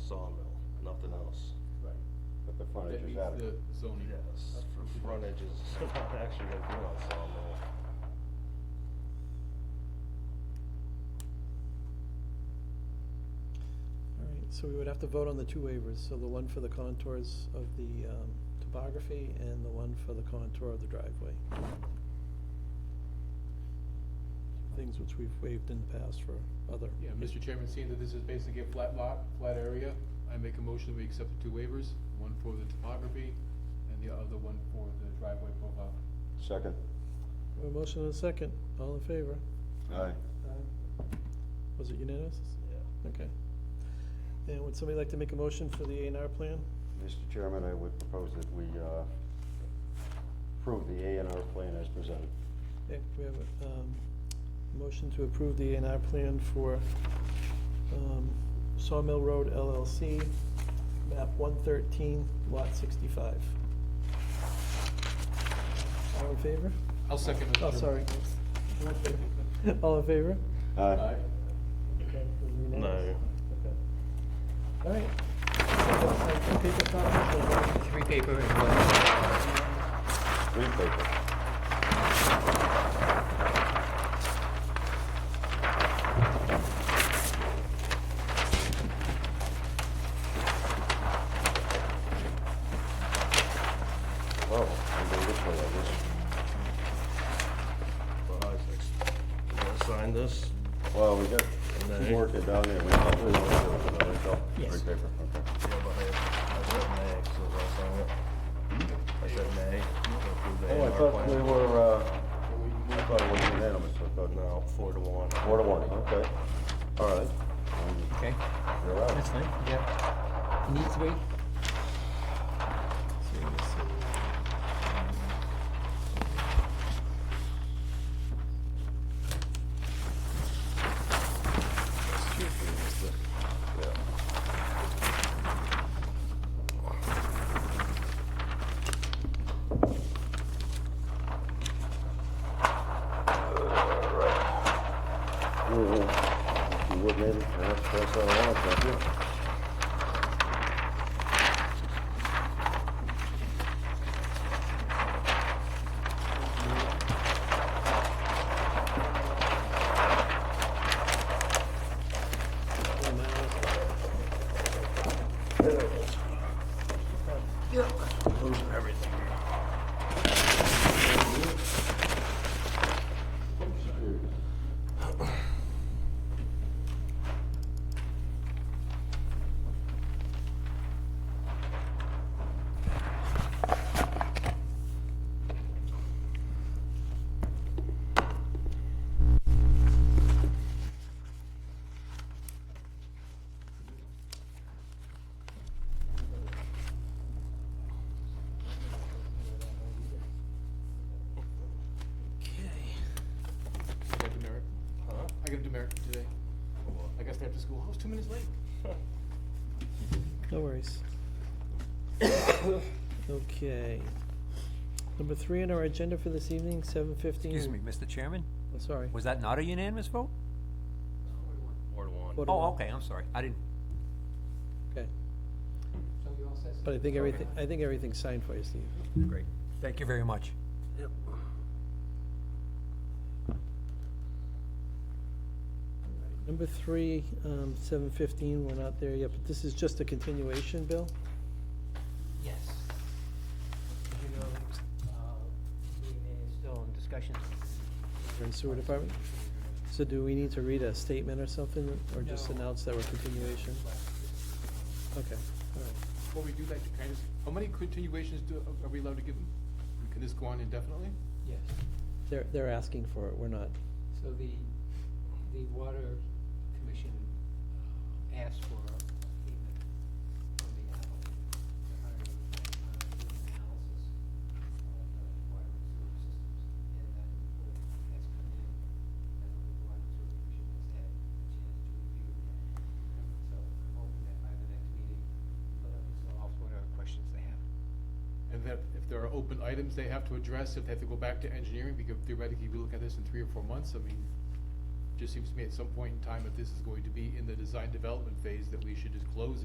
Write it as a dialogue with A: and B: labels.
A: sawmill, nothing else.
B: Right.
C: But the
B: That
C: frontage is
B: meets
C: adequate.
B: the zoning.
A: Yes, for frontage is not actually a real sawmill.
D: All right, so we would have to vote on the two waivers, so the one for the contours of the um, topography and the one for the contour of the driveway. Things which we've waived in the past for other.
B: Yeah, Mr. Chairman, seeing that this is basically a flat lot, flat area, I make a motion that we accept the two waivers, one for the topography and the other one for the driveway profile.
C: Second,
D: We have A motion and a second, all in favor?
C: aye.
D: Was it unanimous?
A: Yeah.
D: Okay. And would somebody like to make a motion for the A and R plan?
C: Mr. Chairman, I would propose that we uh, approve the A and R plan as presented.
D: Okay, we have a, um, motion to approve the A and R plan for, um, Sawmill Road LLC, map one thirteen, lot sixty-five. All in favor?
B: I'll second Mr.
D: Oh, sorry.
B: Chairman.
D: All in favor?
C: Aye.
B: Aye.
D: Okay, was it
A: No.
D: unanimous? All right. Take a copy.
E: Three paper and one.
C: Green paper. Oh, I'm going this way, I guess.
A: But Isaac's, you gonna sign this?
C: Well, we got
A: Nay.
C: some work to down there. We probably don't have it, but it's all
D: Yes.
C: Green paper, okay.
A: Yeah, but I, I said nay, so I'll sign it. I said nay. to approve the
C: Oh, I
A: A&R
C: thought
A: plan.
C: we were, uh, I thought it was unanimous, I thought not.
A: No, four to one.
C: Four to one, okay. All right. Um,
E: Okay,
C: You're out.
E: that's fine, yeah. Need three?
C: Mhm. You would maybe, perhaps, that's all right, thank you.
B: I got demerit.
A: Huh?
B: I got a demerit today.
A: Hold
B: I got to stay after school. I was two minutes late.
A: on.
D: No worries. Okay. Number three on our agenda for this evening, seven fifteen. Oh,
E: Excuse me, Mr. Chairman,
D: Sorry.
E: was that not a unanimous vote?
A: Four to one.
D: Four to
E: Oh,
D: one.
E: okay, I'm sorry, I didn't,
D: Okay. But I think everything, I think everything's signed for you, Steve.
E: great, thank you very much.
D: Number three, um, seven fifteen, we're not there yet, but this is just a continuation, Bill?
E: Yes. As you know, uh, is still in discussion.
D: For the sewer department? So do we need to read a statement or something, or just
B: No.
D: announce that we're continuation? Okay, all right.
B: Before we do that, can I just, how many continuations do, are we allowed to give them? Can this go on indefinitely?
F: Yes,
D: They're, they're asking for it, we're not.
F: so the, the water commission uh, asked for a payment from the applicant to hire a uh, do an analysis of the water and sewer systems. And that report has come in, and the water and sewer commission has had a chance to review that. So I'm hoping that by the next meeting, they'll have resolved whatever questions they have.
B: And that if there are open items they have to address, if they have to go back to engineering, we could theoretically be looking at this in three or four months, I mean, just seems to me at some point in time, if this is going to be in the design development phase, that we should just close it.